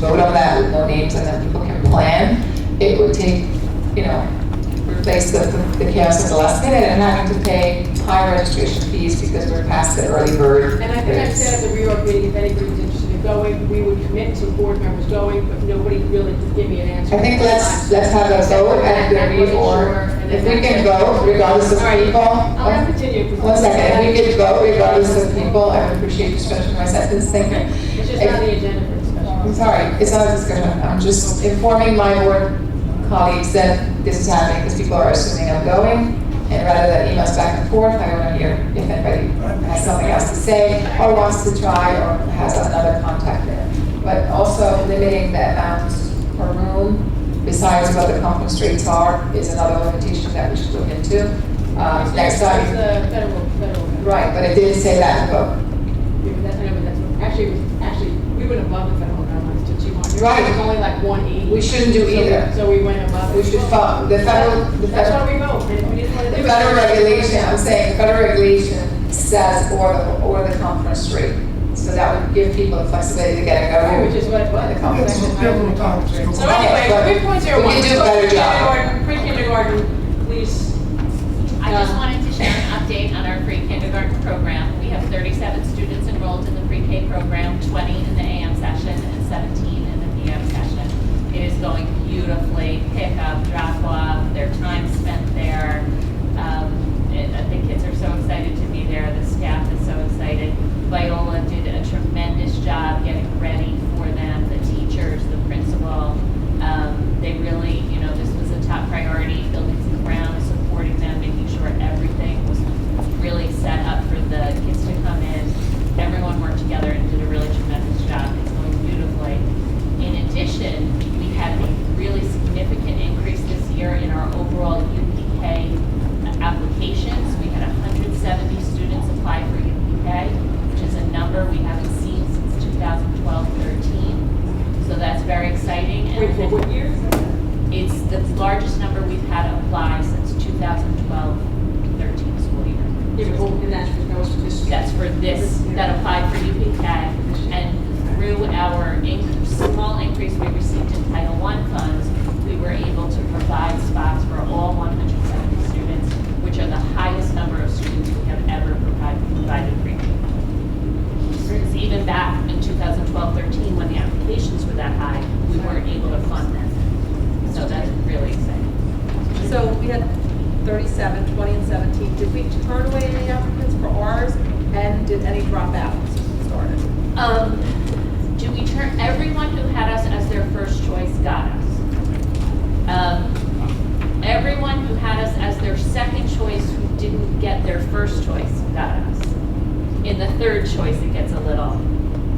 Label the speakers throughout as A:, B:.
A: vote on that with no names, and then people can plan. It would take, you know, replace the, the chaos at the last minute and having to pay high registration fees because we're past the early bird.
B: And I think I said at the reorg meeting, if anybody's interested in going, we would commit to board members going, but nobody really could give me an answer.
A: I think let's, let's have a vote at the reorg. If we can vote regardless of
B: I'll have to
A: people,
B: continue. 'cause-
A: one second, if we can vote regardless of people, I would appreciate you stretching my sentence, thank you.
B: It's just not on the agenda for
A: I'm
B: discussion.
A: sorry, it's not a discussion, I'm just informing my board colleagues that this is happening, because people are assuming I'm going, and rather than emails back and forth, I want to hear if anybody has something else to say, or wants to try, or has another contact there. But also limiting the amount per room, besides what the conference rates are, is another limitation that we should look into. Uh, Next
B: It's
A: time,
B: the federal, federal.
A: right, but it didn't say that in the book.
B: Yeah, but that's, I know, but that's, what- actually, it was- actually, we went above the federal guidelines to two hundred.
A: Right.
B: It was only like one eighty.
A: We shouldn't do
B: So-
A: either.
B: So we went above.
A: We should follow, the federal, the
B: That's
A: federal.
B: why we vote, and if we didn't want to
A: The
B: do it.
A: federal regulation, I'm saying, federal regulation says or the, or the conference rate. So that would give people the flexibility to get a
B: Which
A: government.
B: is what it was.
C: It's a different time.
B: So anyway, three point zero one.
A: We can do a better job.
B: Pre-kindergarten, please.
D: I just wanted to share an update on our free kindergarten program. We have 37 students enrolled in the pre-K program, 20 in the AM session and 17 in the PM session. It is going beautifully, pick up, drop off, their time spent there. Um, it- uh, The kids are so excited to be there, the staff is so excited. Viola did a tremendous job getting ready for them, the teachers, the principal. Um, They really, you know, this was a top priority, building some ground, supporting them, making sure everything was really set up for the kids to come in. Everyone worked together and did a really tremendous job. It's going beautifully. In addition, we had a really significant increase this year in our overall UPK applications. We had 170 students apply for UPK, which is a number we haven't seen since 2012-13. So that's very exciting. and-
B: Wait, for what year?
D: it's the largest number we've had apply since 2012-13 school year.
B: Yeah, but
E: oh,
B: well, and that's for those who just-
D: That's for this, that applied for UPK. And through our in- small increase we received in Title I funds, we were able to provide spots for all 170 students, which are the highest number of students we have ever provided, provided pre-K students, even back in 2012-13, when the applications were that high, we weren't able to fund them. So that's really exciting.
E: So we had 37, 20, and 17. Did we turn away any applicants for ours? And did any drop out since we started?
D: Um, do we turn, everyone who had us as their first choice got us. Um, everyone who had us as their second choice who didn't get their first choice got us. In the third choice, it gets a little,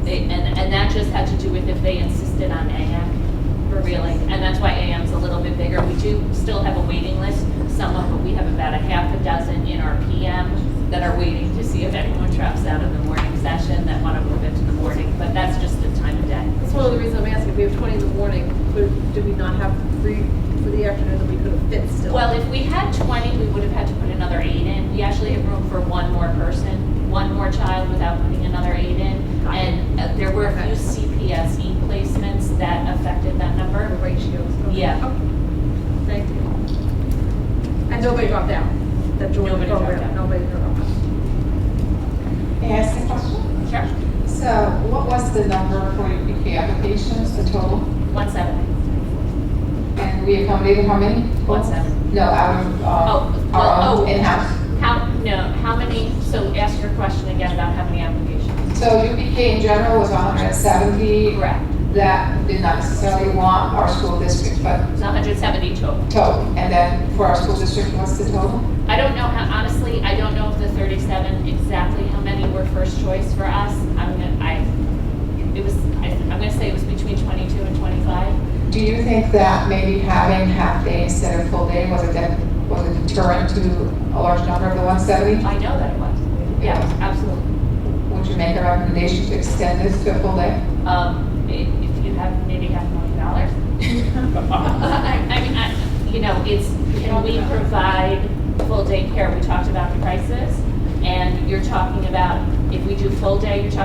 D: they, and, and that just had to do with if they insisted on AM for really, and that's why AM's a little bit bigger. We do still have a waiting list, some of, we have about a half a dozen in our PM that are waiting to see if anyone drops out of the morning session that want to move into the morning, but that's just the time of day.
E: That's one of the reasons I'm asking. We have 20 in the morning. Could- Do we not have three for the afternoon that we could have fit still?
D: Well, if we had 20, we would have had to put another eight in. We actually have room for one more person, one more child without putting another eight in. And uh, there were a few CPSE placements that affected that
E: Or the
D: number.
E: ratios. Okay.
D: Yeah.
E: Okay. Thank you. And nobody dropped out? That joined the
D: Nobody dropped
E: program?
D: out.
E: Nobody dropped out.
A: May I ask a question?
D: Sure.
A: So what was the number for UPK applications, the total?
D: One seven.
A: And we accommodated how many?
D: One seven.
A: No, out of,
D: Oh,
A: um, our
D: well,
A: own
D: oh.
A: in-house.
D: How, no, how many, so ask your question again about how many applications.
A: So UPK in general was 170
D: Correct.
A: that did not necessarily want our school district, but
D: It's 170 total.
A: total. And then for our school district, what's the total?
D: I don't know how, honestly, I don't know if the thirty-seven, exactly how many were first choice for us. I'm gonna, I, it was, I- I'm gonna say it was between twenty-two and twenty-five.
A: Do you think that maybe having half day instead of full day was a, de- was a deterrent to a large number of the 170?
D: I know that it was. Yeah, absolutely.
A: Would you make a recommendation to extend this to a full day?
D: Um, i- if you have maybe half a million dollars. I I mean, I, you know, it's, can we provide full day care? We talked about the prices. And you're talking about, if we do full day, you're talking